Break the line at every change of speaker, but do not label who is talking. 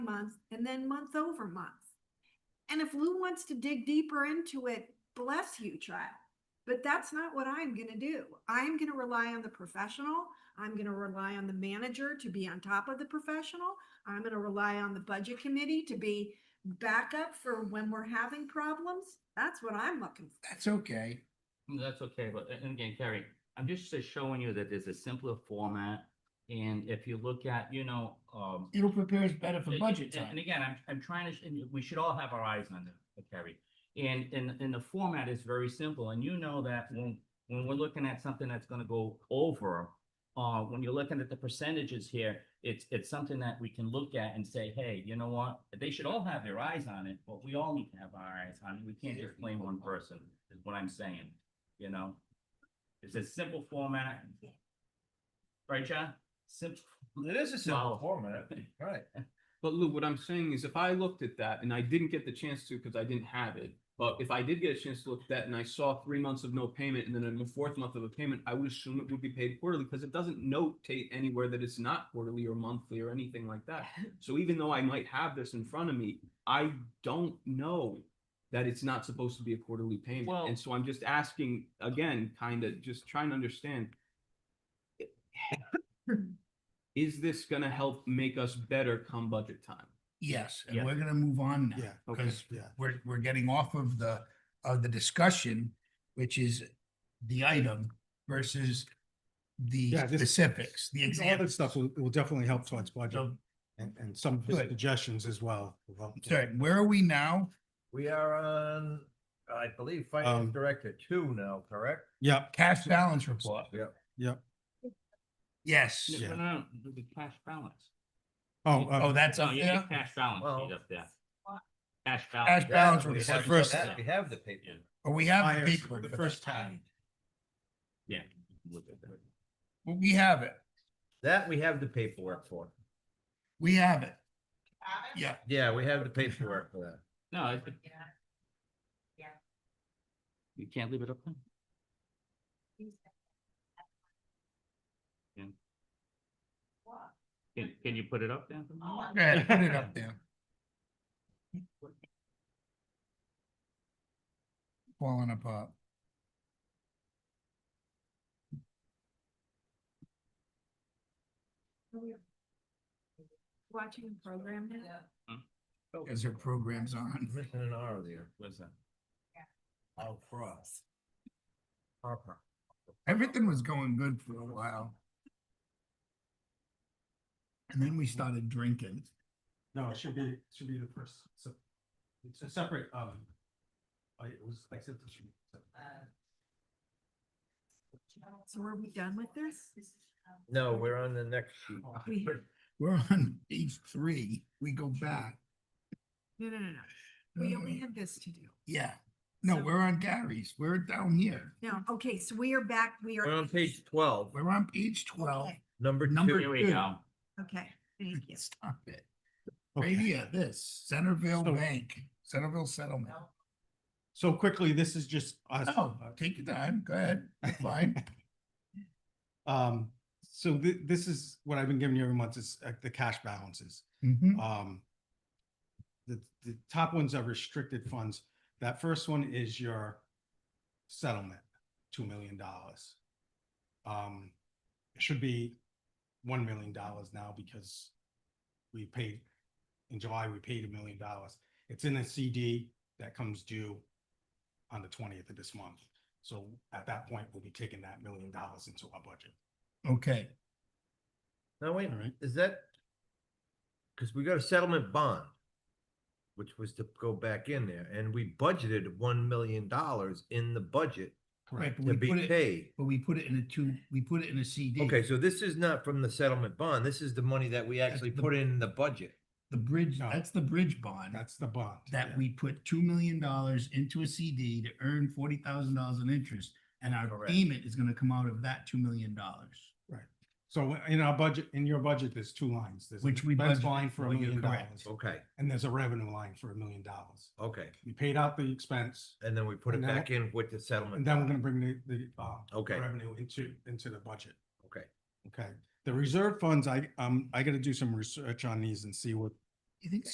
month and then month over month. And if Lou wants to dig deeper into it, bless you, child. But that's not what I'm gonna do. I'm gonna rely on the professional. I'm gonna rely on the manager to be on top of the professional. I'm gonna rely on the budget committee to be backup for when we're having problems. That's what I'm looking for.
That's okay.
That's okay, but a- and again, Carrie, I'm just uh, showing you that there's a simpler format. And if you look at, you know, um.
It'll prepare us better for
a-
budget
a- And
time.
again, I'm, I'm trying to, sh- and we should all have our eyes on the, Carrie. And, and, and the format is very simple, and you know that when, when we're looking at something that's gonna go over, uh, when you're looking at the percentages here, it's, it's something that we can look at and say, hey, you know what? They should all have their eyes on it, but we all need to have our eyes on it. We can't just blame one person, is what I'm saying, you know? It's a simple format. Right, John? Simple.
It is a simple
Wow.
format, right?
But Lou, what I'm saying is if I looked at that and I didn't get the chance to because I didn't have it, but if I did get a chance to look at that and I saw three months of no payment and then a fourth month of a payment, I would assume it would be paid quarterly because it doesn't notate anywhere that it's not quarterly or monthly or anything like that. So even though I might have this in front of me, I don't know that it's not supposed to be a quarterly payment.
Well-
And so I'm just asking again, kind of just trying to understand. Is this gonna help make us better come budget time?
Yes,
Yeah.
and we're gonna move on now.
Yeah,
Okay.
Because
yeah.
we're, we're getting off of the, of the discussion, which is the item versus the
Yeah, this-
specifics, the
All that
examples.
stuff will, will definitely help towards budget
So,
and, and some of his
Good.
suggestions as well. will help.
sorry, where are we now?
We are on, I believe, finance
Um,
director two now, correct?
Yep,
Cash balance report.
Yep.
Yep.
Yes.
No,
Yeah.
no, no, no, the cash balance.
oh,
Oh,
uh,
that's
No,
up
you have
there?
cash balance
Well-
sheet up there. Cash balance.
Cash balance
we
was
have-
first.
We have the paper.
Or we have
Myers,
the paper?
the first time.
Yeah. look at that.
Well, We have it.
That we have the paperwork for.
We have it. Yeah,
Yeah, we have the paperwork for that.
No. it- You can't leave it up there? Can, can you put it up there? for me?
go ahead, put it up there. Falling apart.
Watching the program now.
As our program's on.
Missing an R there.
Where's that?
Oh, cross. Harper.
Everything was going good for a while. And then we started drinking.
no, it should be, it should be the first, so, it's a separate, um, I, it was like. separate-
So are we done with this?
No, we're on the next sheet.
We-
We're on page three. We go back.
No, no, no, no. We only had this to do.
Yeah. No,
So-
we're on Gary's. We're down here.
No, okay, so we are back, we are.
We're on page twelve,
We're on page twelve.
Okay,
number
Number-
two.
Here we go.
Okay, thank you.
Stop it. Right
Okay.
here, this Centerville
So-
Bank, Centerville Settlement.
So quickly, this is just us.
Oh, take your time. Go ahead. Fine.
Um, so thi- this is what I've been giving you every month is uh, the cash balances.
Mhm.
Um, the, the top ones are restricted funds. That first one is your settlement, two million dollars. Um, it should be one million dollars now because we paid, in July, we paid a million dollars. It's in a CD that comes due on the twentieth of this month. So at that point, we'll be taking that million dollars into our budget.
Okay.
Now, wait,
All right.
is that? Cause we got a settlement bond. Which was to go back in there and we budgeted one million dollars in the budget
Right, but
to
we
be
put it,
paid.
but we put it in a two, we put it in a CD.
Okay, so this is not from the settlement bond. This is the money that we
That's
actually
the-
put in the budget.
The bridge,
No.
that's the bridge bond.
That's the bond.
that
yeah.
we put two million dollars into a CD to earn forty thousand dollars in interest, and our
Correct.
payment is gonna come out of that two million dollars.
So in our budget, in your budget, there's two lines. There's an
Which we
expense
budgeted
line for a
for, you're
million
correct.
dollars
Okay,
and there's a revenue line for a million dollars.
okay.
We paid out the expense
And then we put it
And then-
back in with the
and
settlement.
then we're
bond.
gonna bring the, the, uh,
Okay.
revenue into, into the budget.
Okay,
Okay. The reserve funds, I, um, I gotta do some research on these and see what
You think